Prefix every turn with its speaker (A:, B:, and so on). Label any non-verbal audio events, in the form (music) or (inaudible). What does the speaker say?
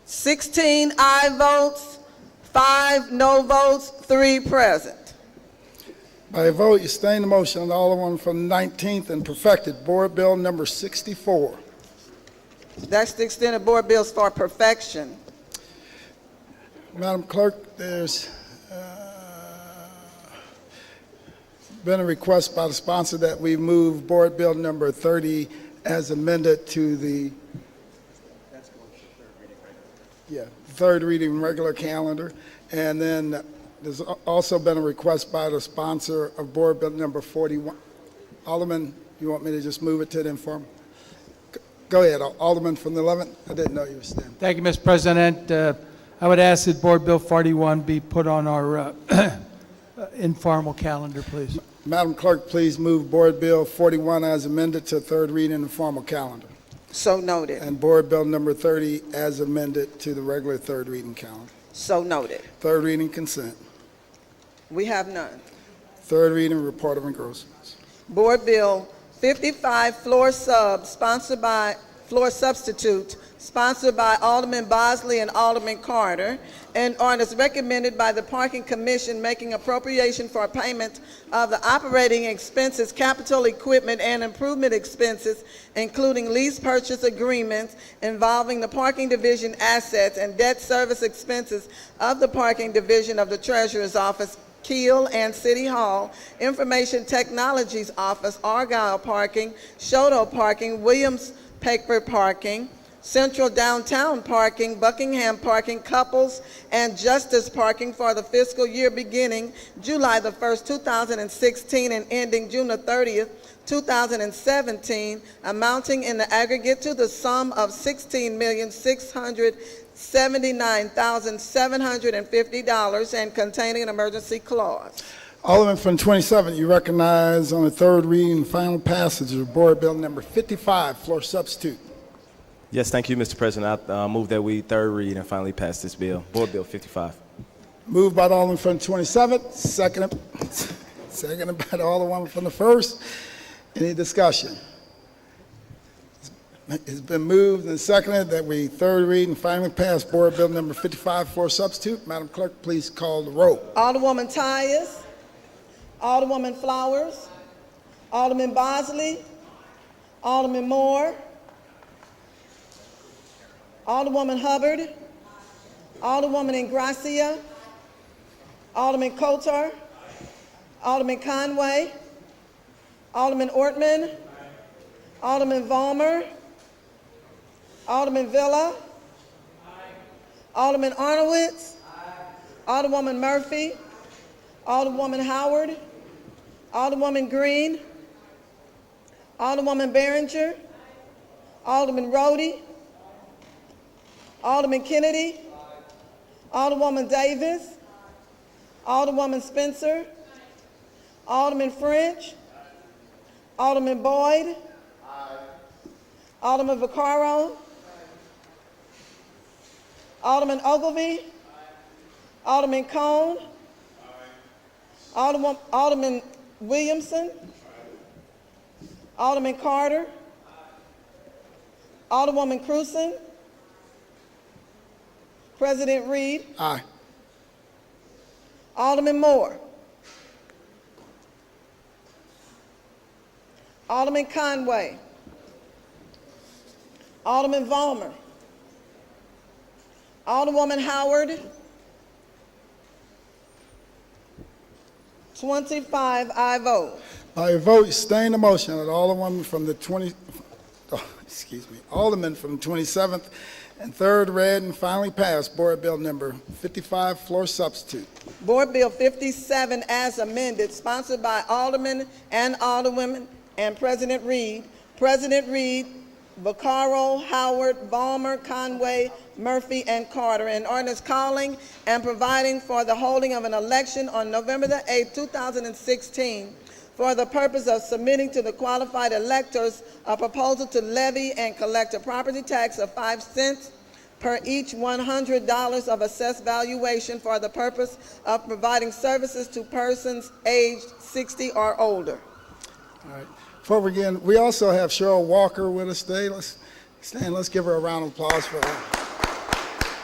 A: 16 aye votes, five no votes, three present.
B: By a vote, you sustain the motion on Alderman from the 19th and perfected Board Bill Number 64.
A: That's the extended board bills for perfection.
B: Madam Clerk, there's uh, been a request by the sponsor that we move Board Bill Number 30 as amended to the... That's going to third reading regular. Yeah, third reading regular calendar. And then there's al- also been a request by the sponsor of Board Bill Number 41. Alderman, you want me to just move it to the inform? Go ahead, Al- Alderman from the 11th. I didn't know you were standing.
C: Thank you, Mr. President. Uh, I would ask that Board Bill 41 be put on our uh, (clears throat) informal calendar, please.
B: Madam Clerk, please move Board Bill 41 as amended to third reading and formal calendar,
A: So noted,
B: and Board Bill Number 30 as amended to the regular third reading calendar.
A: so noted.
B: Third reading consent.
A: We have none.
B: Third reading report of engrossments.
A: Board Bill 55, floor sub, sponsored by, floor substitute, sponsored by Alderman Bosley and Alderman Carter, and ordinance recommended by the Parking Commission making appropriation for payment of the operating expenses, capital equipment, and improvement expenses, including lease purchase agreements involving the Parking Division assets and debt service expenses of the Parking Division of the Treasurer's Office, Keel and City Hall, Information Technologies Office, Argyle Parking, Shoto Parking, Williams Paper Parking, Central Downtown Parking, Buckingham Parking, Couples, and Justice Parking for the fiscal year beginning July the 1st, 2016, and ending June the 30th, 2017, amounting in the aggregate to the sum of $16,679,750 and containing an emergency clause.
B: Alderman from 27, you recognize on the third reading and final passage of Board Bill Number 55, floor substitute.
D: Yes, thank you, Mr. President. I uh, move that we third read and finally pass this bill, Board Bill 55.
B: Moved by the Alderman from 27, seconded, seconded by the Alderman from the first. Any discussion? It's been moved and seconded that we third read and finally pass Board Bill Number 55 for substitute. Madam Clerk, please call the roll.
A: Alderwoman Tyus. Alderwoman Flowers. Alderman Bosley. Alderman Moore. Alderwoman Hubbard. Alderwoman Ingracia. Alderman Coulter. Alderman Conway. Alderman Ortman. Alderman Vollmer. Alderman Villa. Alderman Arnowitz. Alderwoman Murphy. Alderwoman Howard. Alderwoman Green. Alderwoman Behringer. Alderman Rhodey. Alderman Kennedy. Alderwoman Davis. Alderwoman Spencer. Alderman French. Alderman Boyd. Alderman Vaccaro. Alderman Ogilvy. Alderman Cone. Alderman, Alderman Williamson. Alderman Carter. Alderwoman Cruzen. President Reed.
B: Aye.
A: Alderman Moore. Alderman Conway. Alderman Vollmer. Alderwoman Howard. 25 I vote.
B: By your vote, you sustain the motion that Alderwoman from the 20, oh, excuse me, Alderman from 27th and third read and finally pass Board Bill Number 55, floor substitute.
A: Board Bill 57 as amended, sponsored by Alderman and Alderwomen and President Reed. President Reed, Vaccaro, Howard, Ballmer, Conway, Murphy, and Carter. An ordinance calling and providing for the holding of an election on November the 8th, 2016, for the purpose of submitting to the qualified electors a proposal to levy and collect a property tax of 5 cents per each $100 of assessed valuation for the purpose of providing services to persons aged 60 or older.
B: All right. Before we begin, we also have Cheryl Walker with us today. Let's stand, let's give her a round of applause for her.